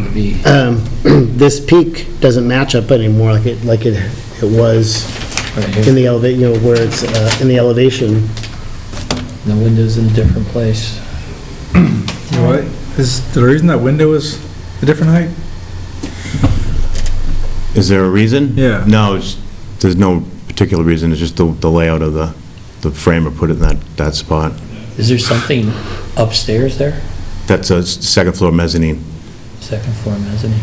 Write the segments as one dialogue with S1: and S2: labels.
S1: to be,
S2: um, this peak doesn't match up anymore like it, like it, it was
S1: right
S2: in
S1: here,
S2: the elevate, you know, where it's, uh, in the elevation.
S1: the window's in a different place.
S3: What, is the reason that window is a different height?
S4: Is there a reason?
S3: Yeah.
S4: No, it's, there's no particular reason, it's just the, the layout of the, the framer put it in that, that spot.
S1: Is there something upstairs there?
S4: That's a s- second floor mezzanine.
S1: Second floor mezzanine?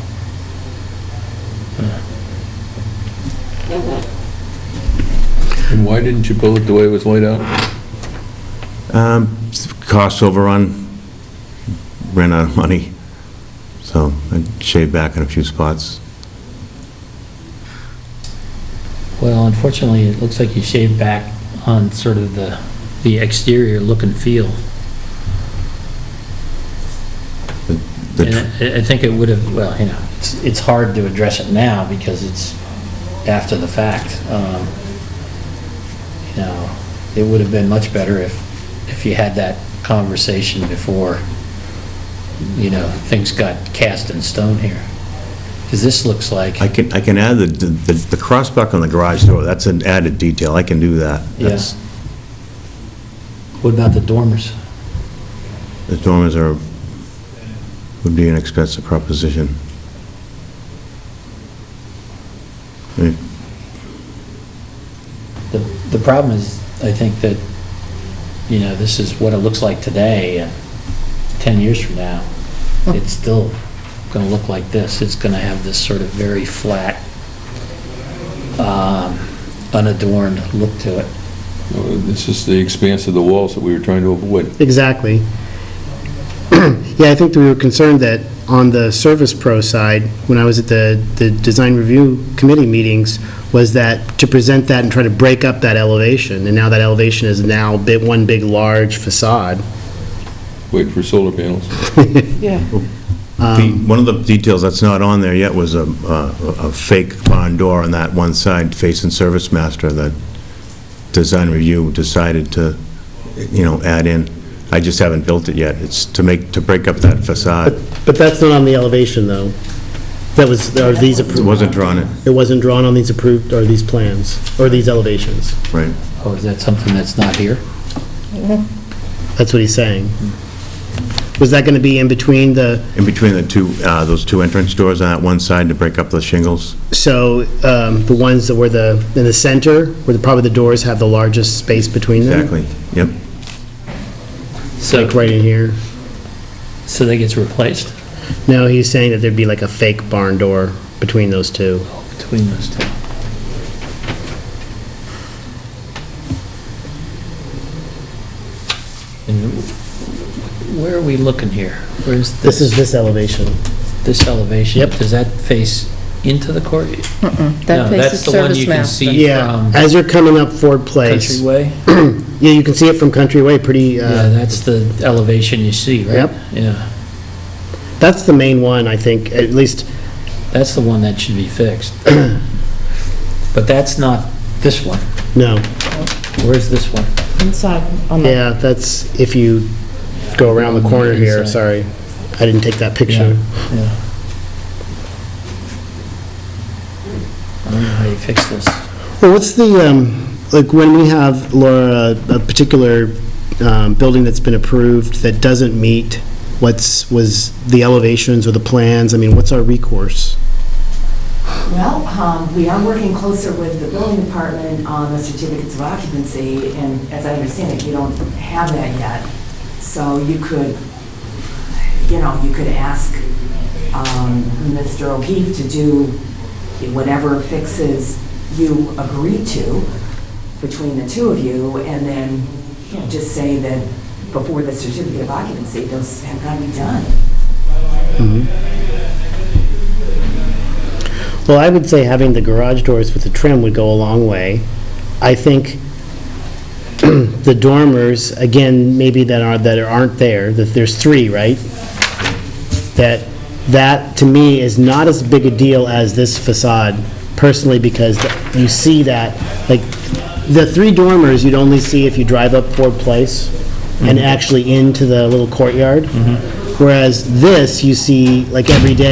S5: And why didn't you build it the way it was laid out?
S4: Um, s- cost overrun, ran out of money, so I shaved back in a few spots.
S1: Well, unfortunately, it looks like you shaved back on sort of the, the exterior look and feel.
S4: The
S1: And
S4: tr-
S1: I, I think it would have, well, you know, it's, it's hard to address it now because it's after the fact. Um, You know, it would have been much better if, if you had that conversation before, you know, things got cast in stone here. Because this looks like,
S4: I can, I can add the, the, the crossbuck on the garage door, that's an added detail, I can do that.
S1: Yeah.
S4: That's-
S1: what about the dormers?
S4: The dormers are, would be an expensive proposition. I mean,
S1: The, the problem is, I think that, you know, this is what it looks like today, and 10 years from now, it's still going to look like this. It's going to have this sort of very flat, um, unadorned look to it.
S5: It's just the expanse of the walls that we were trying to avoid.
S2: Exactly. Yeah, I think that we were concerned that on the Service Pro side, when I was at the, the Design Review Committee meetings, was that to present that and try to break up that elevation, and now that elevation is now bit, one big large facade.
S5: Wait for solar panels.
S4: the- One of the details that's not on there yet was a, a a fake barn door on that one side facing Service Master that Design Review decided to, you know, add in. I just haven't built it yet. It's to make, to break up that facade.
S2: But that's not on the elevation, though. That was, are these
S4: It
S2: approved,
S4: wasn't drawn in,
S2: it wasn't drawn on these approved, or these plans, or these elevations.
S4: right.
S1: Oh, is that something that's not here?
S2: That's what he's saying. Was that going to be in between the,
S4: In between the two, uh, those two entrance doors on that one side to break up the shingles.
S2: so, um, the ones that were the, in the center, where the, probably the doors have the largest space between them?
S4: Exactly, yep.
S1: So,
S2: Like right in here.
S1: so that gets replaced
S2: No, he's saying that there'd be like a fake barn door between those two.
S1: between those two. And where are we looking here? Where's this?
S2: This is this elevation.
S1: this elevation?
S2: Yep.
S1: Does that face into the court?
S6: That
S1: No,
S6: place
S1: that's
S6: is
S1: the one you
S6: Service
S1: can
S6: Master.
S1: see.
S2: Yeah,
S1: From-
S2: as you're coming up Ford Place.
S1: Countryway?
S2: Yeah, you can see it from Country Way, pretty,
S1: Yeah,
S2: uh,
S1: that's the elevation you see, right?
S2: Yep.
S1: Yeah,
S2: that's the main one, I think, at least,
S1: that's the one that should be fixed. But that's not this one.
S2: no.
S1: Where's this one?
S6: Inside, on the,
S2: Yeah, that's if you go around the corner here, sorry. I didn't take that picture.
S1: Yeah, yeah. I don't know how you fix this.
S2: Well, what's the, um, like, when we have, Laura, a particular um, building that's been approved that doesn't meet what's, was the elevations or the plans, I mean, what's our recourse?
S7: Well, um, we are working closer with the building department on the certificates of occupancy, and as I understand it, you don't have that yet. So you could, you know, you could ask um, Mr. O'Keefe to do whatever fixes you agree to between the two of you, and then you know, just say that before the certificate of occupancy, those have got to be done.
S2: Mm-hmm. Well, I would say having the garage doors with the trim would go a long way. I think the dormers, again, maybe that are, that aren't there, that there's three, right? That, that to me is not as big a deal as this facade personally because you see that, like, the three dormers you'd only see if you drive up Ford Place and actually into the little courtyard. Whereas this, you see like every day.